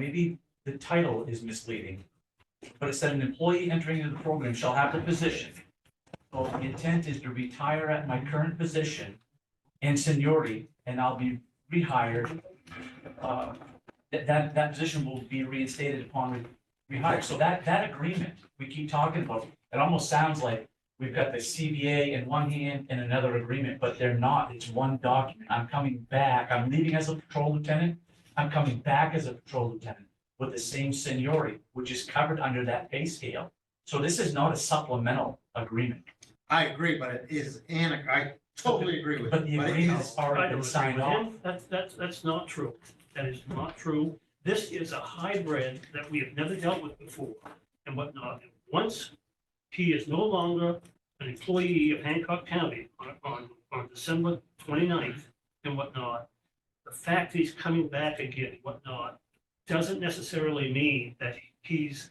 maybe the title is misleading. But it said an employee entering into the program shall have the position. Well, the intent is to retire at my current position and seniority, and I'll be rehired. Uh, That, that, that position will be reinstated upon rehire. So that, that agreement, we keep talking about, it almost sounds like we've got the CBA in one hand and another agreement, but they're not. It's one document. I'm coming back. I'm leaving as a patrol lieutenant. I'm coming back as a patrol lieutenant with the same seniority, which is covered under that pay scale. So this is not a supplemental agreement, I agree, but it is an, I totally agree with. but the you, agreement has I already don't been agree signed with off. him. That's, that's, that's not true. That is not true. This is a hybrid that we have never dealt with before and whatnot. Once he is no longer an employee of Hancock County on, on, on December 29th and whatnot, the fact he's coming back again, and whatnot, doesn't necessarily mean that he's,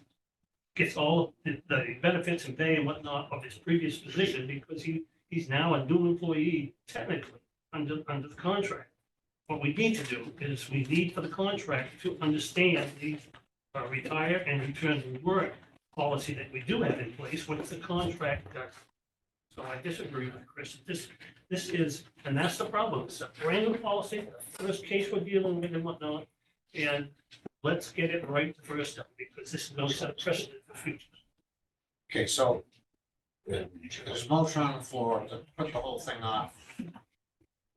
gets all the the benefits and pay and whatnot of his previous position because he, he's now a new employee technically under, under the contract. What we need to do is we need for the contract to understand the uh, retire and return to work policy that we do have in place, what's the contract does. So I disagree with Chris, this, this is, and that's the problem, it's a brand new policy, first case we're dealing with and whatnot. And let's get it right the first time, because this is no set precedent for future. Okay, so uh, there's a motion on the floor to put the whole thing off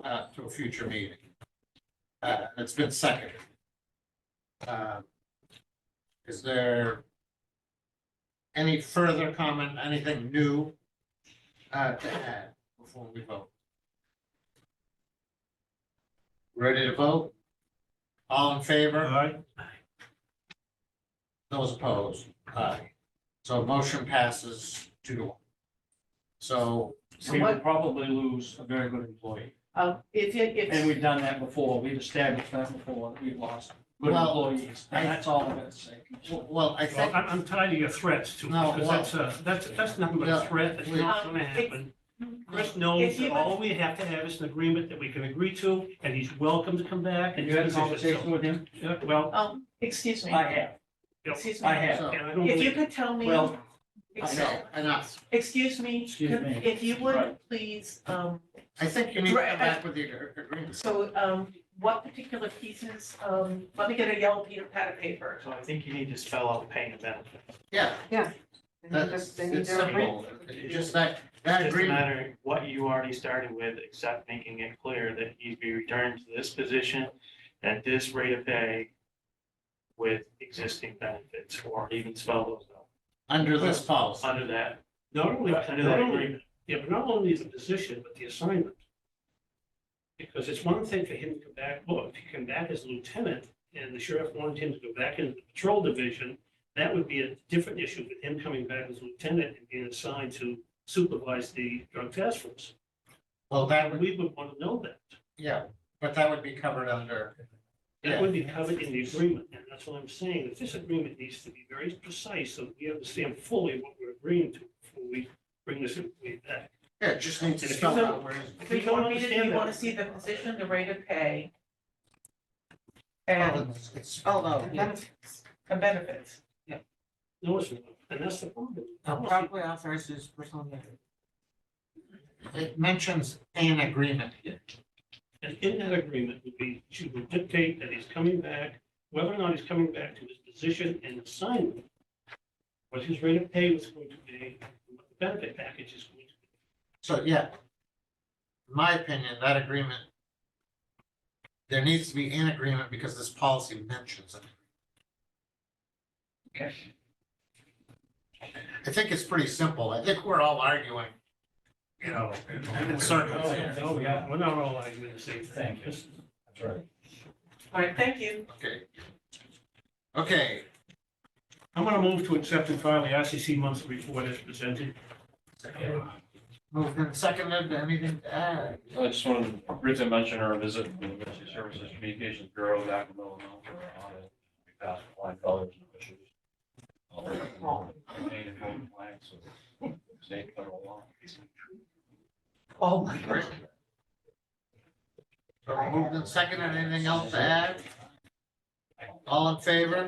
uh, to a future meeting. Uh, it's been seconded. Uh, Is there any further comment, anything new uh, to add before we vote? Ready to vote? All in favor? right. Those opposed, aye. So motion passes two to one. So, We would probably lose a very good employee. Uh, if you, And if, we've done that before. We've established that before. that We've lost good Well, employees. And that's all I'm gonna say. w- well, I Well, think, I'm, I'm tired of your threats too, No, because that's a, that's, that's nothing but No, a threat, that's not gonna happen. Chris knows If you- that all we have to have is an agreement that we can agree to, and he's welcome to come back. And you had a he's- conversation with him? Yeah, Well, um, excuse me, I have. excuse I me, have. so, and I don't if you believe, could tell me, Well, ex- no, enough. excuse me, Excuse could- me. if you would Right. please, um, I think you need to Right, I- come back with the ag- agreement. so, um, what particular pieces, um, let me get a yellow pe- pad of paper. So I think you need to spell out pay and benefit. Yeah, They need to- that's, they need it's to agree. simple. It's Just that, that It doesn't agreement, matter what you already started with, except making it clear that he'd be returning to this position at this rate of pay with existing benefits, or even spell those out, under this policy, under that, not only, not under that only, agreement. yeah, but not only the position, but the assignment. Because it's one thing for him to come back, well, if he come back as lieutenant, and the sheriff wanted him to go back into the patrol division, that would be a different issue with him coming back as lieutenant and being assigned to supervise the drug task force. well, that And would, we would want to know that. yeah, but that would be covered under, That would be covered in the agreement, and that's what I'm saying, that this agreement needs to be very precise, so that we understand fully what we're agreeing to before we bring this employee back. yeah, it just needs to And if spell you- out where it's- If Do we you don't want me to, do understand you wanna that, see the position, the rate of pay? Oh. And, it's it's spelled Oh, out. benefits, and benefits, no, it's not, and that's the problem. Probably authorizes personal measure. It mentions an agreement. And in that agreement would be, she would dictate that he's coming back, whether or not he's coming back to his position and assignment, what his rate of pay was going to be, and what the benefit package is going to be. So, yeah. In My opinion, that agreement. There needs to be an agreement because this policy mentions it. I think it's pretty simple. I think we're all arguing. You know, in circles here. No, Oh, yeah, we're not all arguing the same thing. This- alright, thank you. Okay. Okay, I'm gonna move to accept and file the ICC monthly report as presented. moved and seconded, anything to add? I just wanted to briefly mention our visit to the Emergency Services Communications Bureau back in Illinois for our audit. We passed flying colors and issues. Oh. All the main and home flags of state federal law. Oh my Great. So moved and seconded, anything else to add? All in favor?